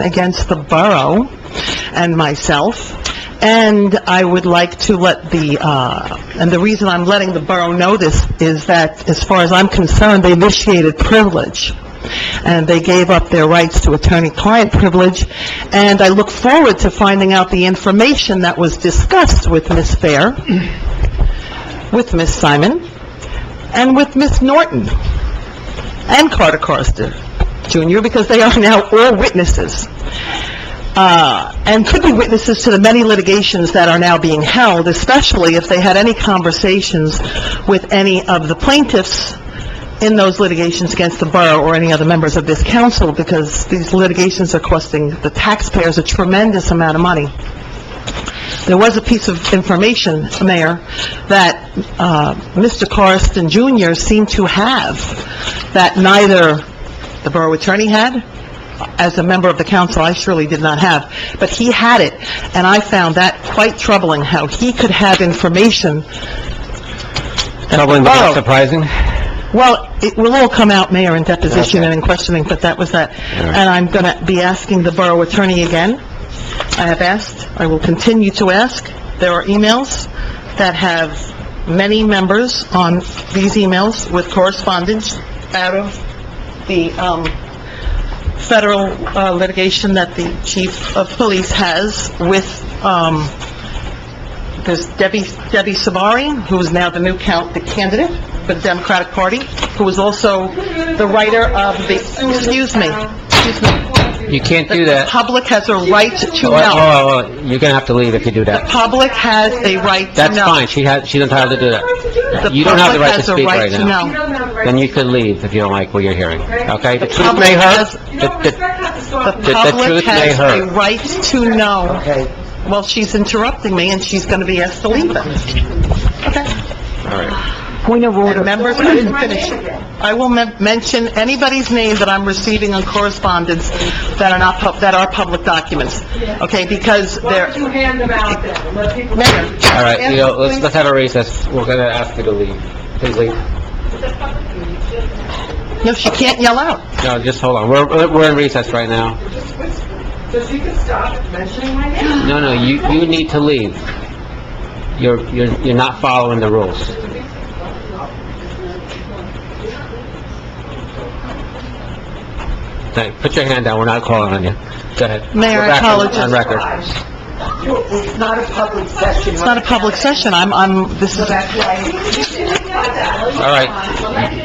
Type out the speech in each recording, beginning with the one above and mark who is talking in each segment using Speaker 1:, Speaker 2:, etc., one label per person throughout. Speaker 1: against the borough and myself, and I would like to let the, uh, and the reason I'm letting the borough know this is that, as far as I'm concerned, they initiated privilege, and they gave up their rights to attorney-client privilege, and I look forward to finding out the information that was discussed with Ms. Fair, with Ms. Simon, and with Ms. Norton, and Carter Carster Jr., because they are now all witnesses, uh, and could be witnesses to the many litigations that are now being held, especially if they had any conversations with any of the plaintiffs in those litigations against the borough or any other members of this council, because these litigations are costing the taxpayers a tremendous amount of money. There was a piece of information, Mayor, that uh, Mr. Carson Jr. seemed to have that neither the borough attorney had, as a member of the council, I surely did not have, but he had it, and I found that quite troubling, how he could have information.
Speaker 2: Troubling but
Speaker 1: Oh.
Speaker 2: not surprising.
Speaker 1: Well, it will all come out, Mayor, in deposition and in questioning, but that was that. And I'm going to be asking the borough attorney again. I have asked, I will continue to ask. There are emails that have many members on these emails with correspondence out of the um, federal uh, litigation that the chief of police has with, um, there's Debbie, Debbie Sabari, who is now the new count, the candidate for the Democratic Party, who is also the writer of the, excuse me, excuse me.
Speaker 2: You can't do
Speaker 1: The
Speaker 2: that.
Speaker 1: public has a right to know.
Speaker 2: Whoa, whoa, whoa, You're gonna have to leave if you do
Speaker 1: The
Speaker 2: Oh, that.
Speaker 1: public has a right to
Speaker 2: That's
Speaker 1: know.
Speaker 2: fine, she has, she's entitled to do that.
Speaker 1: The
Speaker 2: You don't have the
Speaker 1: public
Speaker 2: right to
Speaker 1: has a
Speaker 2: speak
Speaker 1: right
Speaker 2: right
Speaker 1: to
Speaker 2: now.
Speaker 1: know.
Speaker 2: Then you could leave if you don't like what you're hearing, okay? The truth
Speaker 1: public
Speaker 2: may hurt.
Speaker 1: has-
Speaker 3: You know,
Speaker 2: The- the-
Speaker 3: respect has to
Speaker 1: The
Speaker 3: start from the...
Speaker 1: public
Speaker 2: truth may
Speaker 1: has a
Speaker 2: hurt.
Speaker 1: right to know. Well, she's interrupting me, and she's going to be asked to leave then. Okay.
Speaker 2: All right.
Speaker 4: Point of
Speaker 1: And
Speaker 4: order.
Speaker 1: members, I didn't finish. I will men- mention anybody's name that I'm receiving on correspondence that are not, pub- that are public documents, okay? Because
Speaker 3: Why don't
Speaker 1: they're...
Speaker 3: you hand them out then, and let people...
Speaker 1: Mayor,
Speaker 2: All right, you know, let's,
Speaker 1: please.
Speaker 2: let's have a recess. We're gonna ask you to leave. Please leave.
Speaker 1: No, she can't yell out.
Speaker 2: No, just hold on. We're, we're in recess right now.
Speaker 3: So she can stop mentioning my name.
Speaker 2: No, no, you, you need to leave. You're, you're, you're not following the rules. Thank, put your hand down, we're not calling on you. Go ahead.
Speaker 1: Mayor,
Speaker 2: We're back on-
Speaker 1: I
Speaker 2: On record.
Speaker 5: It's not a public session.
Speaker 1: It's not a public session, I'm, I'm, this is...
Speaker 5: That's why
Speaker 2: All right,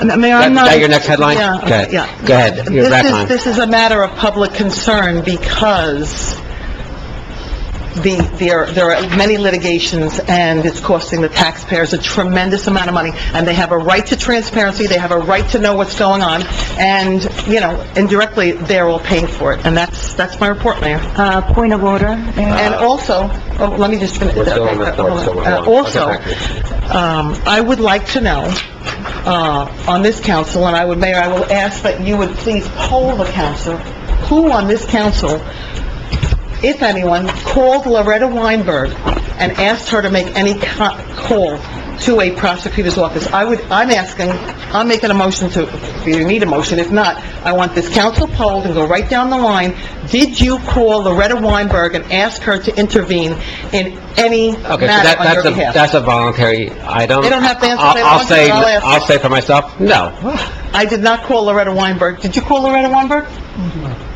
Speaker 1: Uh, Mayor, I'm
Speaker 2: Is
Speaker 1: not...
Speaker 2: that your next headline?
Speaker 1: Yeah, okay,
Speaker 2: Okay.
Speaker 1: yeah.
Speaker 2: Go ahead. You're
Speaker 1: This
Speaker 2: back
Speaker 1: is-
Speaker 2: on.
Speaker 1: This is a matter of public concern because the, there, there are many litigations, and it's costing the taxpayers a tremendous amount of money, and they have a right to transparency, they have a right to know what's going on, and, you know, indirectly, they're all paying for it, and that's, that's my report, Mayor.
Speaker 4: Uh, point of order. Mayor.
Speaker 1: And also, oh, let me just finish.
Speaker 2: We're still Uh, on
Speaker 1: Okay,
Speaker 2: record, so we're
Speaker 1: uh,
Speaker 2: on.
Speaker 1: Also,
Speaker 2: Okay, thank
Speaker 1: um, I would like to know, uh, on this council, and I would, Mayor, I will ask that you would please poll the council, who on this council, if anyone, called Loretta Weinberg and asked her to make any co- call to a prosecutor's office? I would, I'm asking, I'm making a motion to, if you need a motion, if not, I want this council polled and go right down the line, did you call Loretta Weinberg and ask her to intervene in any
Speaker 2: Okay, so that,
Speaker 1: matter on your
Speaker 2: that's a,
Speaker 1: behalf?
Speaker 2: that's a voluntary, I don't...
Speaker 1: They don't have to answer if they
Speaker 2: I'll-
Speaker 1: don't
Speaker 2: I'll
Speaker 1: want to,
Speaker 2: say-
Speaker 1: but I'll ask.
Speaker 2: I'll say for myself, no.
Speaker 1: I did not call Loretta Weinberg. Did you call Loretta Weinberg?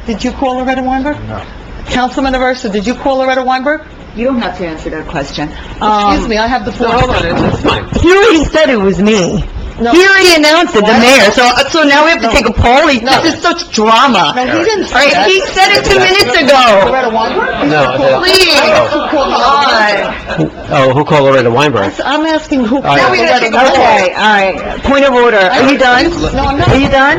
Speaker 1: Did you call Loretta Weinberg? No. Councilman Aversa, did you call Loretta Weinberg?
Speaker 4: You don't have to answer that question.
Speaker 1: Oh,
Speaker 4: Um,
Speaker 1: Excuse me, I have the floor.
Speaker 2: Hold on, it's, it's fine.
Speaker 4: He already said it was me.
Speaker 1: No.
Speaker 4: He already announced it, the
Speaker 1: What?
Speaker 4: mayor, so, uh, so now we have to
Speaker 1: No.
Speaker 4: take a poll? He-
Speaker 1: No.
Speaker 4: This is such drama.
Speaker 1: No, he didn't
Speaker 4: All
Speaker 1: say
Speaker 4: right,
Speaker 1: that.
Speaker 4: he said it two minutes ago.
Speaker 1: Loretta Weinberg?
Speaker 2: No, I don't-
Speaker 4: Please. God.
Speaker 2: Oh, who called Loretta Weinberg?
Speaker 1: I'm asking who
Speaker 2: right.
Speaker 1: called
Speaker 2: Now
Speaker 4: Okay,
Speaker 2: we're
Speaker 1: Loretta Weinberg.
Speaker 4: all right. Point of order. Are you done?
Speaker 1: No, I'm not.
Speaker 4: Are you done?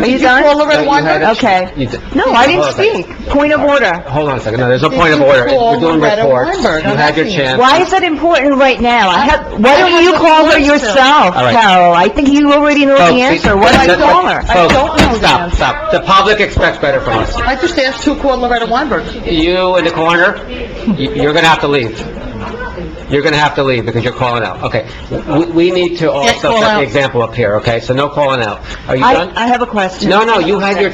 Speaker 4: Are you done?
Speaker 1: call Loretta Weinberg?
Speaker 4: Okay.
Speaker 2: You did-
Speaker 4: No, I
Speaker 2: Hold on
Speaker 4: didn't
Speaker 2: a second.
Speaker 4: speak. Point of order.
Speaker 2: Hold on a second, no, there's no
Speaker 1: Did
Speaker 2: point of
Speaker 1: you
Speaker 2: order.
Speaker 1: call
Speaker 2: We're doing
Speaker 1: Loretta
Speaker 2: reports, you
Speaker 1: Weinberg? I'm
Speaker 2: had your
Speaker 1: asking you.
Speaker 2: chance.
Speaker 4: Why is that important right now? I have, why
Speaker 1: I have
Speaker 4: don't you
Speaker 1: the
Speaker 4: call her
Speaker 1: voice now.
Speaker 4: yourself,
Speaker 2: All right.
Speaker 4: Carol? I think you already know the
Speaker 2: Folks,
Speaker 4: answer.
Speaker 2: it-
Speaker 4: Why
Speaker 2: that-
Speaker 4: don't I
Speaker 2: that-
Speaker 4: call her?
Speaker 1: I
Speaker 2: folks,
Speaker 1: don't know the
Speaker 2: Stop,
Speaker 1: answer.
Speaker 2: stop. The public expects better from us.
Speaker 1: I just asked who called Loretta Weinberg.
Speaker 2: You in the corner, y- you're gonna have to leave. You're gonna have to leave because you're calling out. Okay, we, we need to also
Speaker 1: call
Speaker 2: set
Speaker 1: out.
Speaker 2: the example up here, okay? So no calling out. Are you
Speaker 4: I,
Speaker 2: done?
Speaker 4: I have a question.
Speaker 2: No, no, you had your